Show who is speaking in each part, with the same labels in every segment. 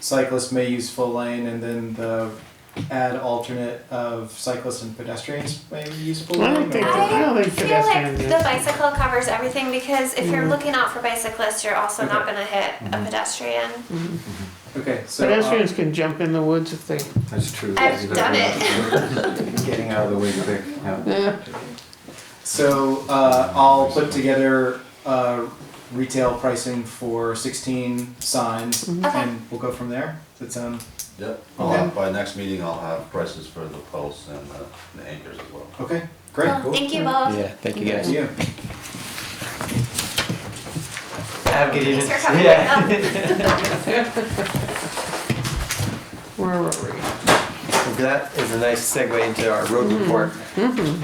Speaker 1: cyclists may use full lane, and then the add alternate of cyclists and pedestrians may use full
Speaker 2: I
Speaker 1: lane.
Speaker 2: don't think
Speaker 1: or-
Speaker 2: that- I don't think
Speaker 3: feel like
Speaker 2: pedestrians.
Speaker 3: the bicycle covers everything because if you're looking out for bicyclists, you're also not
Speaker 1: Okay.
Speaker 3: gonna hit a pedestrian.
Speaker 1: Okay, so uh,
Speaker 2: Pedestrians can jump in the woods if they,
Speaker 4: That's true.
Speaker 3: I've done
Speaker 4: it.
Speaker 1: getting
Speaker 4: Out of the way quick, yeah.
Speaker 2: yeah,
Speaker 1: So uh, I'll put together uh, retail pricing for 16 signs,
Speaker 2: Mm-hmm.
Speaker 3: Okay.
Speaker 1: and we'll go from there. Does that sound
Speaker 5: Yep, I'll have, by next meeting, I'll have prices for the posts and the, the anchors as well.
Speaker 1: okay? Great.
Speaker 3: Well, Thank you both.
Speaker 6: Yeah, thank you guys.
Speaker 1: Thank you.
Speaker 7: Have a good evening.
Speaker 3: Thanks for coming.
Speaker 7: Yeah.
Speaker 3: Oh.
Speaker 2: where were we?
Speaker 7: That is a nice segue into our road report. Mm-hmm.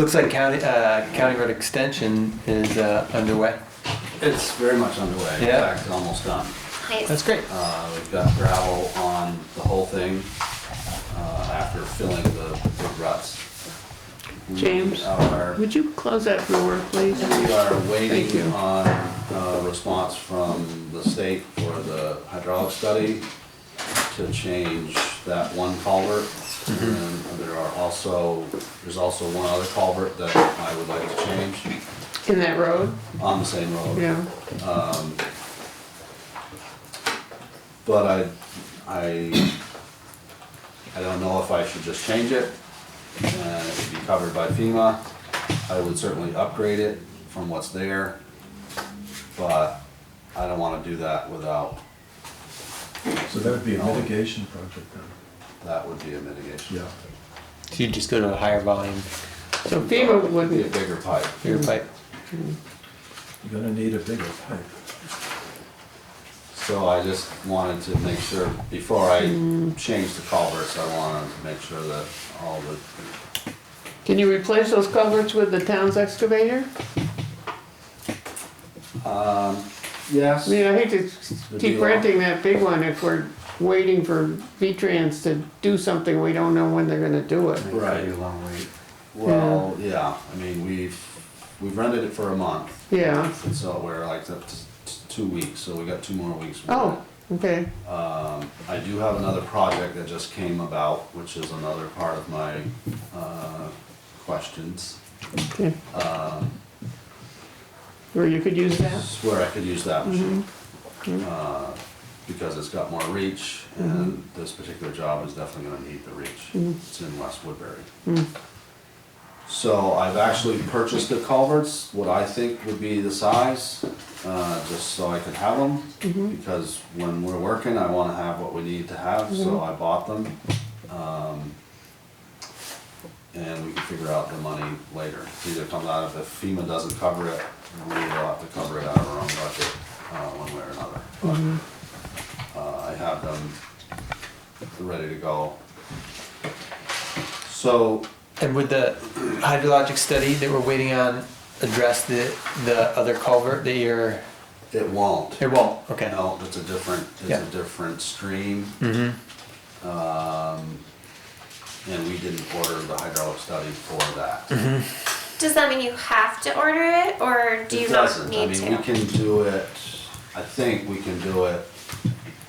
Speaker 7: Looks like county, uh, county road extension is, uh, underway.
Speaker 5: It's very much underway, in
Speaker 7: Yeah.
Speaker 5: fact, it's almost done.
Speaker 3: Nice.
Speaker 7: That's great.
Speaker 5: Uh, we've got gravel on the whole thing, uh, after filling the the ruts. We
Speaker 2: James.
Speaker 5: Are,
Speaker 2: Would you close that door, please?
Speaker 5: we are
Speaker 2: Thank you.
Speaker 5: waiting on a response from the state for the hydraulic study to change that one culvert. And
Speaker 2: Mm-hmm.
Speaker 5: there are also, there's also one other culvert that I would like to change
Speaker 2: In that road,
Speaker 5: on the same road.
Speaker 2: yeah.
Speaker 5: But I, I, I don't know if I should just change it, uh, it'd be covered by FEMA. I would certainly upgrade it from what's there, but I don't wanna do that without,
Speaker 8: So that would be a mitigation project then,
Speaker 5: that would be a mitigation.
Speaker 8: yeah.
Speaker 6: So you just go to a higher volume
Speaker 2: So FEMA
Speaker 5: Be a
Speaker 2: wouldn't,
Speaker 5: bigger pipe.
Speaker 6: for
Speaker 7: Mm-hmm.
Speaker 6: your pipe.
Speaker 8: You're gonna need a bigger pipe.
Speaker 5: So I just wanted to make sure, before I
Speaker 2: Hmm.
Speaker 5: change the culverts, I wanna make sure that all the,
Speaker 2: can you replace those culverts with the town's excavator?
Speaker 5: um,
Speaker 2: I
Speaker 5: yes.
Speaker 2: mean, I hate to keep renting that big one if we're waiting for V-Trans to do something, we don't know when they're gonna do it.
Speaker 5: Right.
Speaker 4: Be a long wait.
Speaker 5: Well, yeah, I mean, we've, we've rented it for a month,
Speaker 2: Yeah,
Speaker 5: and so we're like, that's two weeks, so we got two more weeks. with
Speaker 2: oh, okay,
Speaker 5: it. Um, I do have another project that just came about, which is another part of my, uh, questions.
Speaker 2: okay.
Speaker 5: Um,
Speaker 2: Or you could use that,
Speaker 5: This is where I could use that machine. Uh, Because it's got more reach, and this particular job is definitely gonna need the reach. It's in West Woodbury. So I've actually purchased the culverts, what I think would be the size, uh, just so I could have them. Because when we're working, I wanna have what we need to have, so I bought them. Um, And we can figure out the money later. Either comes out of, if FEMA doesn't cover it, we will have to cover it out of our own budget, uh, one way or another. But, uh, I have them ready to go. So,
Speaker 7: And would the hydrologic study that we're waiting on address the, the other culvert that you're,
Speaker 5: it won't.
Speaker 7: it won't, okay.
Speaker 5: No, it's a different,
Speaker 7: Yeah.
Speaker 5: it's a different stream.
Speaker 7: Mm-hmm,
Speaker 5: Um, and we didn't order the hydraulic study for that.
Speaker 3: Does that mean you have to order it or do you
Speaker 5: It
Speaker 3: not
Speaker 5: doesn't. I
Speaker 3: need
Speaker 5: mean,
Speaker 3: to?
Speaker 5: we can do it, I think we can do it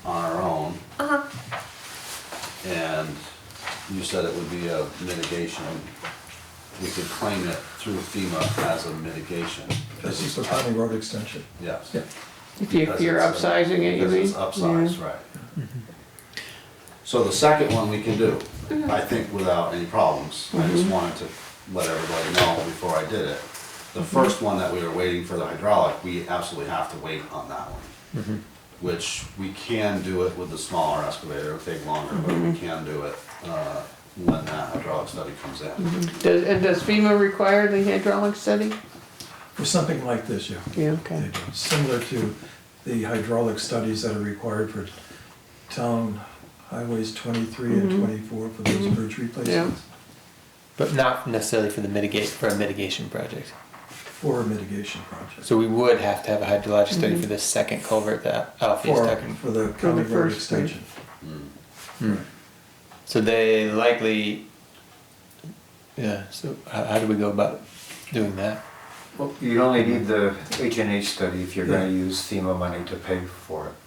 Speaker 5: on our own.
Speaker 3: Uh-huh.
Speaker 5: And you said it would be a mitigation. We could claim it through FEMA as a mitigation.
Speaker 8: This is the county road extension.
Speaker 5: Yes.
Speaker 8: Yeah.
Speaker 2: if you- if
Speaker 5: Because
Speaker 2: you're
Speaker 5: it's, uh,
Speaker 2: upsizing it, you mean?
Speaker 5: Because it's upsized, right. So the second one we can do,
Speaker 2: Mm-hmm.
Speaker 5: I think without any problems. I just wanted to let everybody know before I did it. The first one that we were waiting for the hydraulic, we absolutely have to wait on that one.
Speaker 2: Mm-hmm.
Speaker 5: Which we can do it with the smaller excavator, it'll take longer, but
Speaker 2: Mm-hmm.
Speaker 5: we can do it, uh, when that hydraulic study comes in.
Speaker 2: Does, and does FEMA require the hydraulic study?
Speaker 8: For something like this, yeah.
Speaker 2: Yeah, okay.
Speaker 8: They do. Similar to the hydraulic studies that are required for town highways twenty-three and twenty-four for those bridge replacements
Speaker 7: but not necessarily for the mitigate, for a mitigation project.
Speaker 8: for a mitigation project.
Speaker 7: So we would have to have a hydrologic study for this second culvert that Alfie's
Speaker 8: For,
Speaker 7: talking.
Speaker 8: for the county road
Speaker 2: first
Speaker 8: extension.
Speaker 7: Hmm. So they likely, yeah, so how, how do we go about doing that?
Speaker 4: Well, you only need the H and H study if you're gonna
Speaker 8: Yeah.
Speaker 4: use FEMA money to pay for it.